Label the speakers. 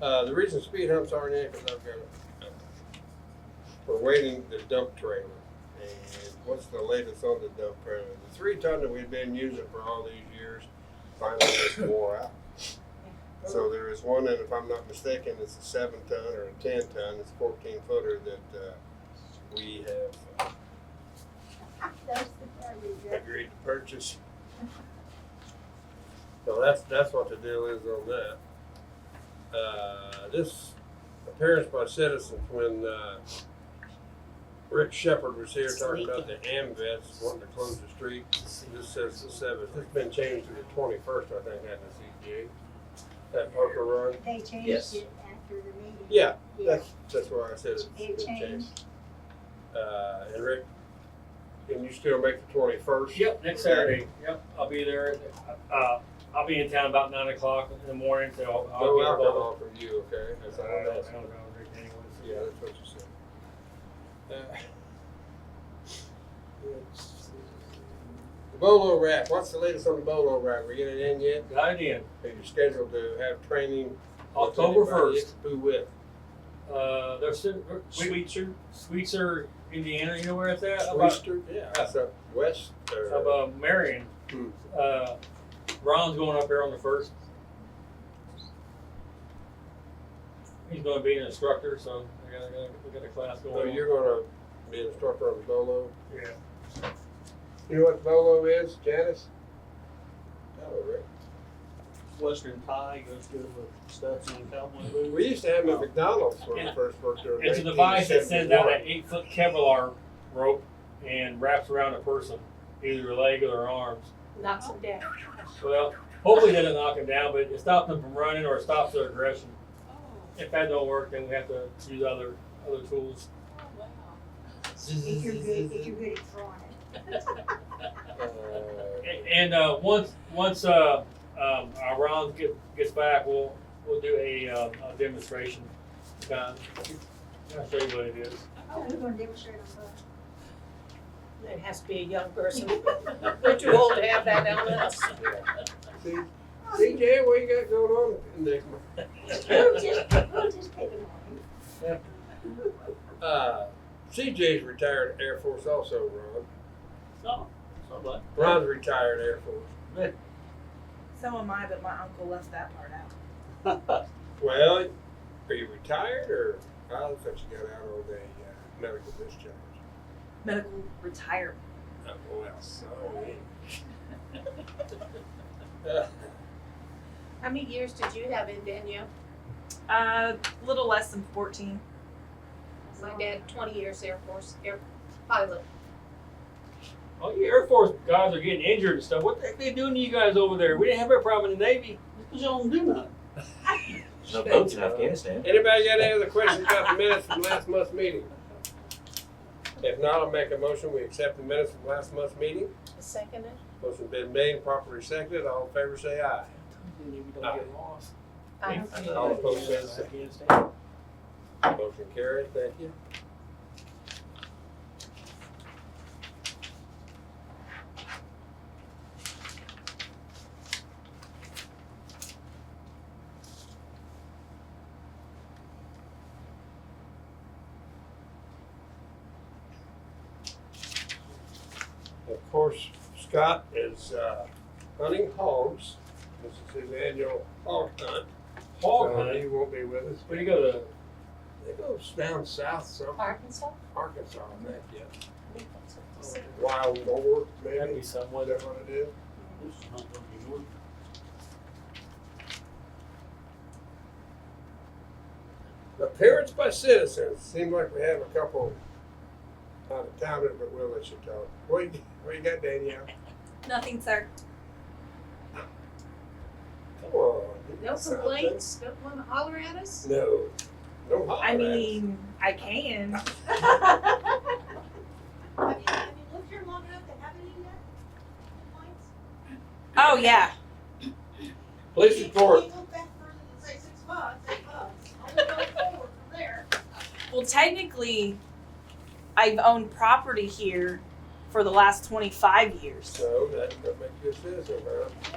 Speaker 1: Uh, the reason speed humps aren't in, cause I've got a, we're waiting the dump trailer. And what's the latest on the dump trailer? The three ton that we've been using for all these years finally just wore out. So there is one, and if I'm not mistaken, it's a seven ton or a ten ton, it's fourteen footer that, uh, we have
Speaker 2: That's the part we
Speaker 1: uh,
Speaker 2: get.
Speaker 1: agreed to purchase. So that's, that's what the deal is on that. Uh, this appearance by citizens when, uh, Rick Shepherd was here talking about the AMVets wanting to close the street, this says the seventh, it's been changed to the twenty-first, I think, at the CDA. That Parker Run.
Speaker 2: They changed
Speaker 3: Yes.
Speaker 2: it after the meeting.
Speaker 1: Yeah,
Speaker 2: Yeah.
Speaker 1: that's, that's why I said it's
Speaker 2: It
Speaker 1: been
Speaker 2: changed.
Speaker 1: changed. Uh, and Rick, can you still make the twenty-first?
Speaker 4: Yep, next Saturday. Yep, I'll be there. Uh, I'll be in town about nine o'clock in the morning, so I'll, I'll
Speaker 1: No
Speaker 4: get involved.
Speaker 1: alcohol from you, okay? That's all
Speaker 4: Uh,
Speaker 1: I'm
Speaker 4: that's
Speaker 1: asking.
Speaker 4: not about Rick anyways.
Speaker 1: Yeah, that's what you said. Uh, let's see. The Bolo wrap, what's the latest on the Bolo wrap? We get it in yet?
Speaker 4: Got it in.
Speaker 1: Are you scheduled to have training? with
Speaker 4: October
Speaker 1: anybody?
Speaker 4: first.
Speaker 1: Who with?
Speaker 4: Uh, there's Sweetser, Sweetser, Indiana. You know where it's at? About,
Speaker 1: Western? Yeah, that's up west uh, or
Speaker 4: about Marion.
Speaker 1: Hmm.
Speaker 4: Uh, Ron's going up there on the first. He's going to be an instructor, so I got, I got, we got a class
Speaker 1: Oh,
Speaker 4: going. on.
Speaker 1: you're gonna be an instructor on the Bolo?
Speaker 4: Yeah.
Speaker 1: You know what Bolo is, Janice? Oh, Rick.
Speaker 5: Western tie goes good with studs and cowboy boots.
Speaker 1: We used to have them at McDonald's when we first worked there. in
Speaker 4: It's a device that sends out an
Speaker 1: 1971.
Speaker 4: eight foot Kevlar rope and wraps around a person, either their leg or their arms.
Speaker 6: knocks them down.
Speaker 4: Well, hopefully it doesn't knock them down, but it stops them from running or it stops their aggression. If that don't work, then we have to use other other tools.
Speaker 2: If you're good, if you're good at drawing it.
Speaker 1: Uh,
Speaker 4: And, and uh, once once uh, um, our Ron get, gets back, we'll we'll do a, uh, a demonstration. Uh, I'll show you what it is.
Speaker 2: Oh, we're gonna demonstrate on both.
Speaker 6: It has to be a young person. We're too old to have that on us.
Speaker 1: See, CJ, what you got going on in the
Speaker 2: We'll just, we'll just pick them on.
Speaker 1: Uh, CJ's retired Air Force also, Ron.
Speaker 5: No, somebody.
Speaker 1: Ron's retired Air Force.
Speaker 7: So am I, but my uncle left that part out.
Speaker 1: Well, are you retired or I thought you got out on the uh, medical discharge?
Speaker 7: Medical retirement.
Speaker 1: Uh, well, so. Uh,
Speaker 6: How many years did you have in Danielle?
Speaker 7: Uh, little less than 14.
Speaker 6: My dad, twenty years Air Force, air pilot.
Speaker 4: All you Oh, Air Force guys are getting injured and stuff. What the heck they doing to you guys over there? We didn't have that problem in the Navy.
Speaker 5: Because y'all don't do nothing.
Speaker 3: No boats in Afghanistan.
Speaker 1: Anybody got any other questions about the minutes from last month's meeting? If not, I'll make a motion, we accept the minutes from last month's meeting.
Speaker 6: Second it?
Speaker 1: Motion been made, properly seconded, all in favor say aye.
Speaker 5: And you don't get lost.
Speaker 6: I don't
Speaker 5: Thank
Speaker 6: think
Speaker 5: you.
Speaker 1: All opposed, say aye.
Speaker 5: Afghanistan.
Speaker 1: Motion carried, thank you. Of course, Scott is uh, hunting hogs. This is his annual hog hunt.
Speaker 4: Hog
Speaker 1: So
Speaker 4: hunt.
Speaker 1: He won't be with us.
Speaker 4: Where do you go to?
Speaker 1: It goes down south somewhere,
Speaker 6: Arkansas?
Speaker 1: Arkansas, I think, yeah.
Speaker 6: I think that's what they said.
Speaker 1: Wild boar,
Speaker 4: That'd
Speaker 1: maybe,
Speaker 4: be
Speaker 1: is
Speaker 4: somewhere.
Speaker 1: that what it is?
Speaker 5: This is not gonna be north.
Speaker 1: Appearance by citizens, seemed like we have a couple out of towners, but we'll let you talk. What you, what you got, Danielle?
Speaker 7: Nothing, sir.
Speaker 1: Come on. do
Speaker 6: No
Speaker 1: something.
Speaker 6: complaints, no one holler at us?
Speaker 1: No, no holler
Speaker 7: I
Speaker 1: at us.
Speaker 7: mean, I can.
Speaker 8: Have you, have you lived here long enough to have any yet? Complaints?
Speaker 7: Oh, yeah.
Speaker 1: Police
Speaker 8: You-
Speaker 1: report,
Speaker 8: You look back further than say six months, eight months, only going forward from there.
Speaker 7: Well, technically, I've owned property here for the last 25 years.
Speaker 1: so that, that makes you a citizen, huh?